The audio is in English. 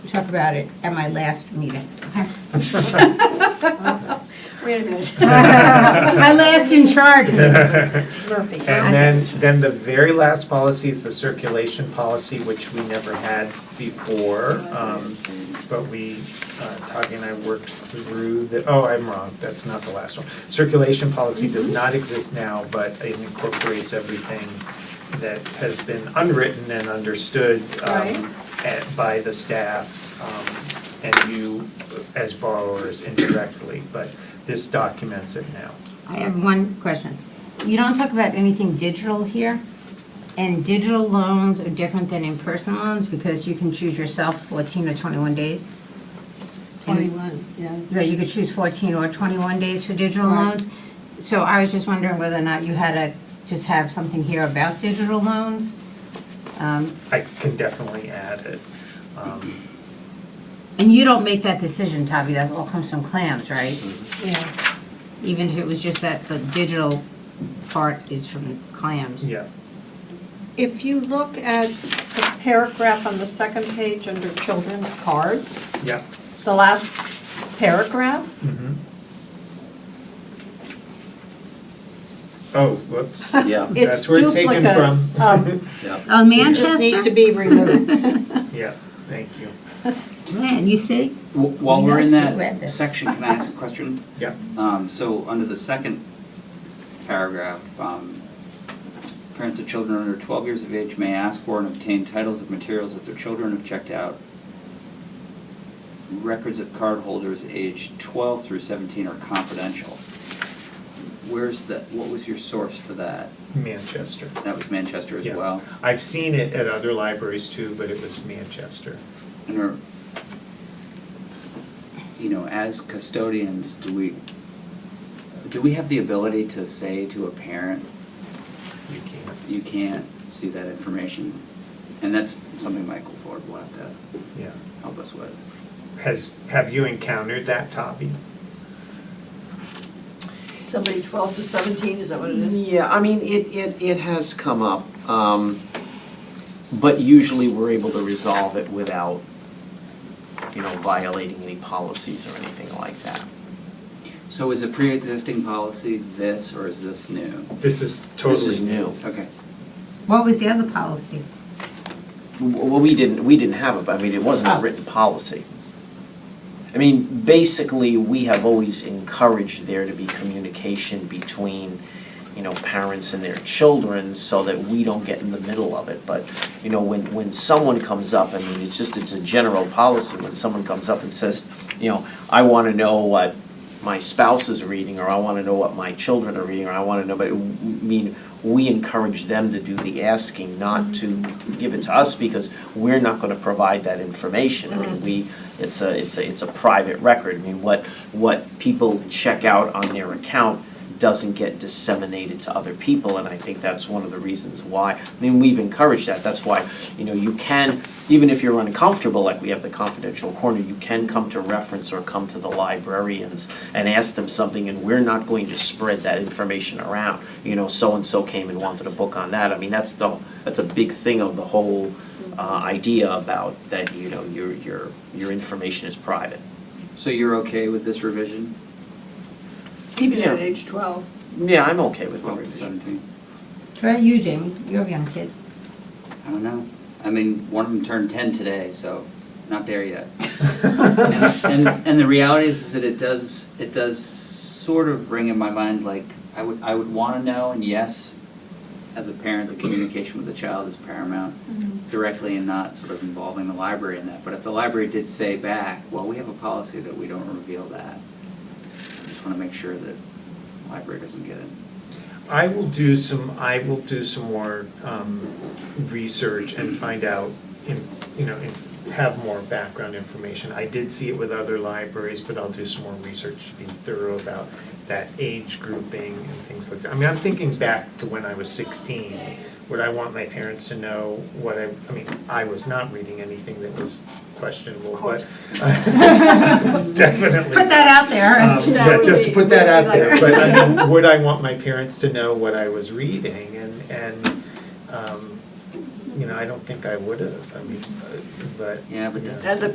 talk about it at my last meeting. Wait a minute. My last in charge meeting. Murphy. And then, then the very last policy is the circulation policy, which we never had before. um, But we, uh, Tanya and I worked through the, oh, I'm wrong, that's not the last one. Circulation policy does not exist now, but it incorporates everything that has been unwritten and understood um, Right. at- by the staff um, and you as borrowers indirectly, but this documents it now. I have one question. You don't talk about anything digital here? And digital loans are different than in-person loans because you can choose yourself 14 or 21 days? And- Twenty-one, yeah. Right, you could choose 14 or 21 days for digital Right. loans. So I was just wondering whether or not you had to just have something here about digital loans? Um, I can definitely add it. um, And you don't make that decision, Tavi, that all comes from clams, right? Yeah. Even if it was just that the digital part is from clams. Yeah, If you look at the paragraph on the second page under children's cards, yeah. the last paragraph, mhm. Oh, whoops. Yeah, it's That's where it's taken duplicate um. from. of- yeah. Oh, It just need Manchester? to be removed. Yeah, thank you. Man, you see? W- While we're in We also read that this. section, can I ask a question? Yeah, Um, So, under the second paragraph, um, parents of children under 12 years of age may ask for and obtain titles of materials that their children have checked out. Records of cardholders aged 12 through 17 are confidential. Where's the, what was your source for that? Manchester. That was Manchester as Yeah. well? I've seen it at other libraries too, but it was Manchester. And are, you know, as custodians, do we, do we have the ability to say to a parent, You can't, you can't see that information? And that's something Michael Ford will have to yeah. help us with. Has, have you encountered that, Tavi? Somebody 12 to 17, is that what it is? Yeah, I mean, it, it, it has come up, um, but usually we're able to resolve it without, you know, violating any policies or anything like that. So is a pre-existing policy this, or is this new? This is This totally is new. new. Okay, What was the other policy? W- Well, we didn't, we didn't have it, but I mean, it wasn't Oh. a written policy. I mean, basically, we have always encouraged there to be communication between, you know, parents and their children so that we don't get in the middle of it. But, you know, when, when someone comes up, I mean, it's just, it's a general policy, when someone comes up and says, you know, I want to know what my spouse is reading, or I want to know what my children are reading, or I want to know, but, I mean, we encourage them to do the asking, not to give it to us, because we're not going to provide that information. I mean, we, it's a, it's a, it's a private record. I mean, what, what people check out on their account doesn't get disseminated to other people, and I think that's one of the reasons why. I mean, we've encouraged that, that's why, you know, you can, even if you're uncomfortable, like we have the confidential corner, you can come to reference or come to the librarians and ask them something, and we're not going to spread that information around. You know, so-and-so came and wanted a book on that, I mean, that's the, that's a big thing of the whole uh, idea about that, you know, your, your, your information is private. so you're okay with this revision, Even at Yeah. age 12. Yeah, I'm okay with the twelve to revision. seventeen? What about you, Jamie? You have young kids. I don't know, I mean, one of them turned ten today, so not there yet. And, and the reality is, is that it does, it does sort of ring in my mind, like, I would, I would wanna know, and yes, as a parent, the communication with the child is paramount directly and not sort of involving the library in that, but if the library did say back, well, we have a policy that we don't reveal that, I just wanna make sure that the library doesn't get it. I will do some, I will do some more um, research and find out, in- you know, in- have more background information. I did see it with other libraries, but I'll do some more research to be thorough about that age grouping and things like that. I mean, I'm thinking back to when I was sixteen, would I want my parents to know what I, I mean, I was not reading anything that was questionable, but. I was Definitely. Put that out Um, there. yeah, would just to be- put that that out would be there, like- but I mean, would I want my parents to know what I was reading and, and, um, you know, I don't think I would have, I mean, uh, but. Yeah, but you know. that's- As a